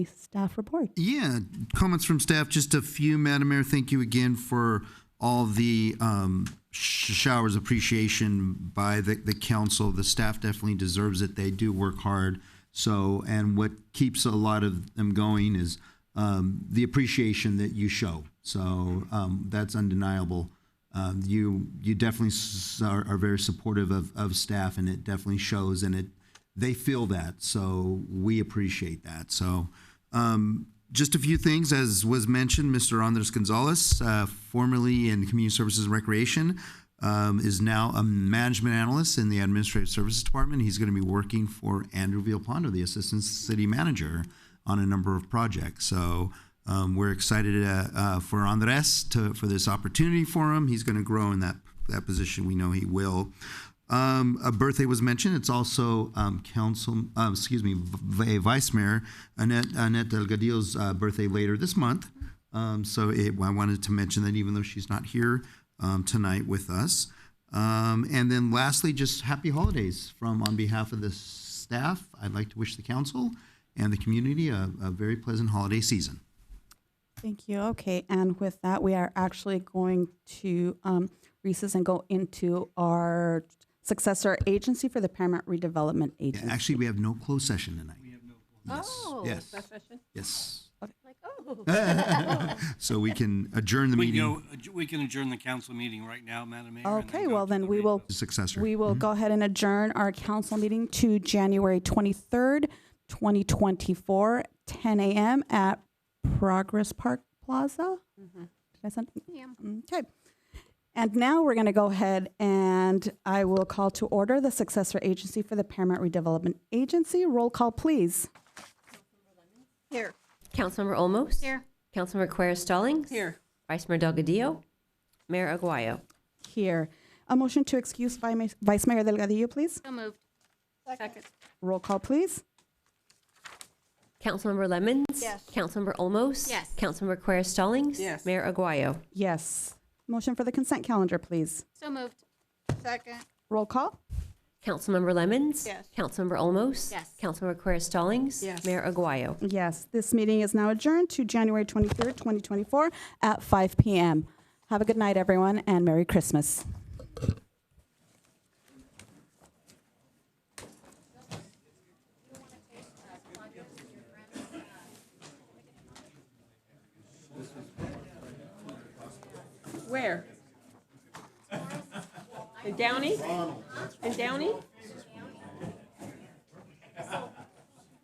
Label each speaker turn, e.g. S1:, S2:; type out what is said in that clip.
S1: staff report.
S2: Yeah, comments from staff, just a few, Madam Mayor. Thank you again for all the um, sh- showers appreciation by the, the council. The staff definitely deserves it. They do work hard. So, and what keeps a lot of them going is um, the appreciation that you show. So um, that's undeniable. Um, you you definitely s- are, are very supportive of, of staff, and it definitely shows, and it they feel that. So we appreciate that. So just a few things, as was mentioned, Mr. Andres Gonzalez, uh, formerly in Community Services and Recreation, um, is now a management analyst in the Administrative Services Department. He's going to be working for Andrew Villalpando, the Assistant City Manager, on a number of projects. So um, we're excited uh, uh, for Andres to, for this opportunity for him. He's going to grow in that that position. We know he will. Um, a birthday was mentioned. It's also um, council, um, excuse me, v- a vice mayor Annette Annette Delgadillo's uh, birthday later this month. Um, so it, I wanted to mention that even though she's not here um, tonight with us. Um, and then lastly, just happy holidays from on behalf of the staff. I'd like to wish the council and the community a, a very pleasant holiday season.
S1: Thank you. Okay, and with that, we are actually going to um, recess and go into our successor agency for the Paramount Redevelopment
S2: Yeah,
S1: Agency.
S2: actually, we have no closed session tonight. We have no.
S3: Oh,
S2: Yes.
S3: that's fashion.
S2: Yes.
S3: Like, oh.
S2: So we can adjourn the
S4: We
S2: meeting.
S4: go, we can adjourn the council meeting right now, Madam Mayor. and then
S1: Okay,
S4: go
S1: well
S4: to
S1: then
S4: the
S1: we will,
S2: successor.
S1: we will go ahead and adjourn our council meeting to January 23rd, 2024, 10 a.m. at Progress Park Plaza. Did I send? Mm, Okay. And now we're going to go ahead and I will call to order the successor agency for the Paramount Redevelopment Agency. Roll call, please.
S3: Here.
S5: Councilmember Olmos?
S3: Here.
S5: Councilmember Quer Stallings?
S3: Here.
S5: Vice Mayor Delgadillo? Mayor Aguayo?
S1: Here. A motion to excuse Vi- Vice Mayor Delgadillo, please.
S3: So moved. Second.
S1: Roll call, please.
S5: Councilmember Lemmons? Yes. Councilmember Olmos?
S3: Yes.
S5: Councilmember Quer Stallings?
S3: Yes.
S5: Mayor Aguayo?
S1: Yes. Motion for the consent calendar, please.
S3: So moved. Second.
S1: Roll call.
S5: Councilmember Lemmons?
S3: Yes.
S5: Councilmember Olmos?
S3: Yes.
S5: Councilmember Quer Stallings?
S3: Yes.
S5: Mayor Aguayo?
S1: Yes, this meeting is now adjourned to January 23rd, 2024 at 5 p.m. Have a good night, everyone, and Merry Christmas.
S3: Where? In Downey? In Downey?